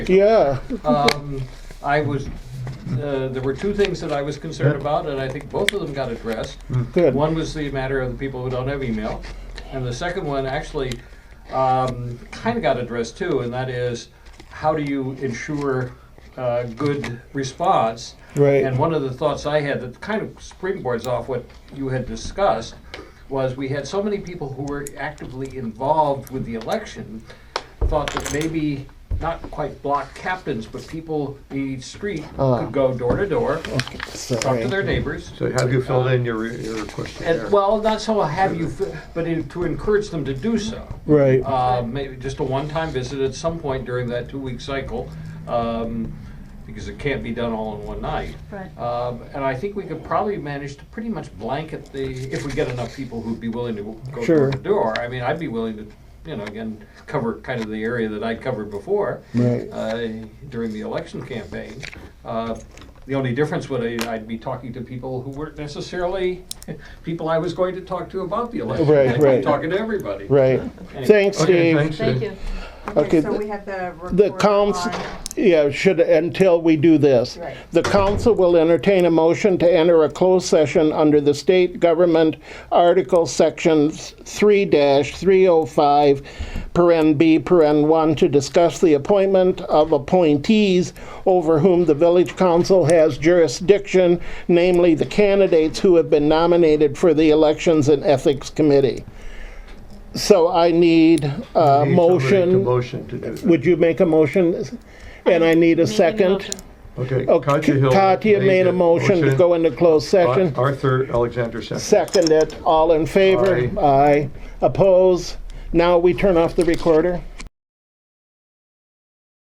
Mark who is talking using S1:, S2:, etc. S1: Yeah.
S2: Um, I was, uh, there were two things that I was concerned about, and I think both of them got addressed.
S1: Good.
S2: One was the matter of the people who don't have email, and the second one actually um, kind of got addressed too, and that is how do you ensure uh, good response?
S1: Right.
S2: And one of the thoughts I had that kind of springboards off what you had discussed was we had so many people who were actively involved with the election thought that maybe not quite block captains, but people in each street
S1: Ah.
S2: could go door to door, talk
S1: Sorry.
S2: to their neighbors,
S3: So have you filled in your, your questionnaire?
S2: and, well, not so have you, but in- to encourage them to do so.
S1: Right.
S2: Uh, Maybe just a one-time visit at some point during that two-week cycle, um, because it can't be done all in one night.
S4: Right.
S2: Um, And I think we could probably manage to pretty much blanket the, if we get enough people who'd be willing to go
S1: Sure.
S2: door to door. I mean, I'd be willing to, you know, again, cover kind of the area that I covered before
S1: Right.
S2: uh, during the election campaign. Uh, The only difference would be I'd be talking to people who weren't necessarily people I was going to talk to about the election.
S1: Right,
S2: I'd be
S1: right.
S2: Talking to everybody.
S1: Right.
S2: Anyway.
S1: Thanks,
S3: Okay,
S1: Steve.
S3: thanks.
S4: Thank
S3: Steve.
S4: you.
S1: Okay,
S5: Okay, so
S1: th-
S5: we have the report on...
S1: The council, yeah, should, until we do this.
S5: Right.
S1: The council will entertain a motion to enter a closed session under the state government article sections three three oh five, paren B, paren one, to discuss the appointment of appointees over whom the village council has jurisdiction, namely the candidates who have been nominated for the elections and ethics committee. So I need a
S3: Need somebody to
S1: motion.
S3: Motion to do that.
S1: Would you make a motion? And I need a second.
S3: Okay, Katya
S1: Okay,
S3: Hill.
S1: oh, Katya made a motion to go into closed session.
S3: Arthur Alexander second.
S1: Second it, all in favor? Aye. Oppose? Now we turn off the recorder?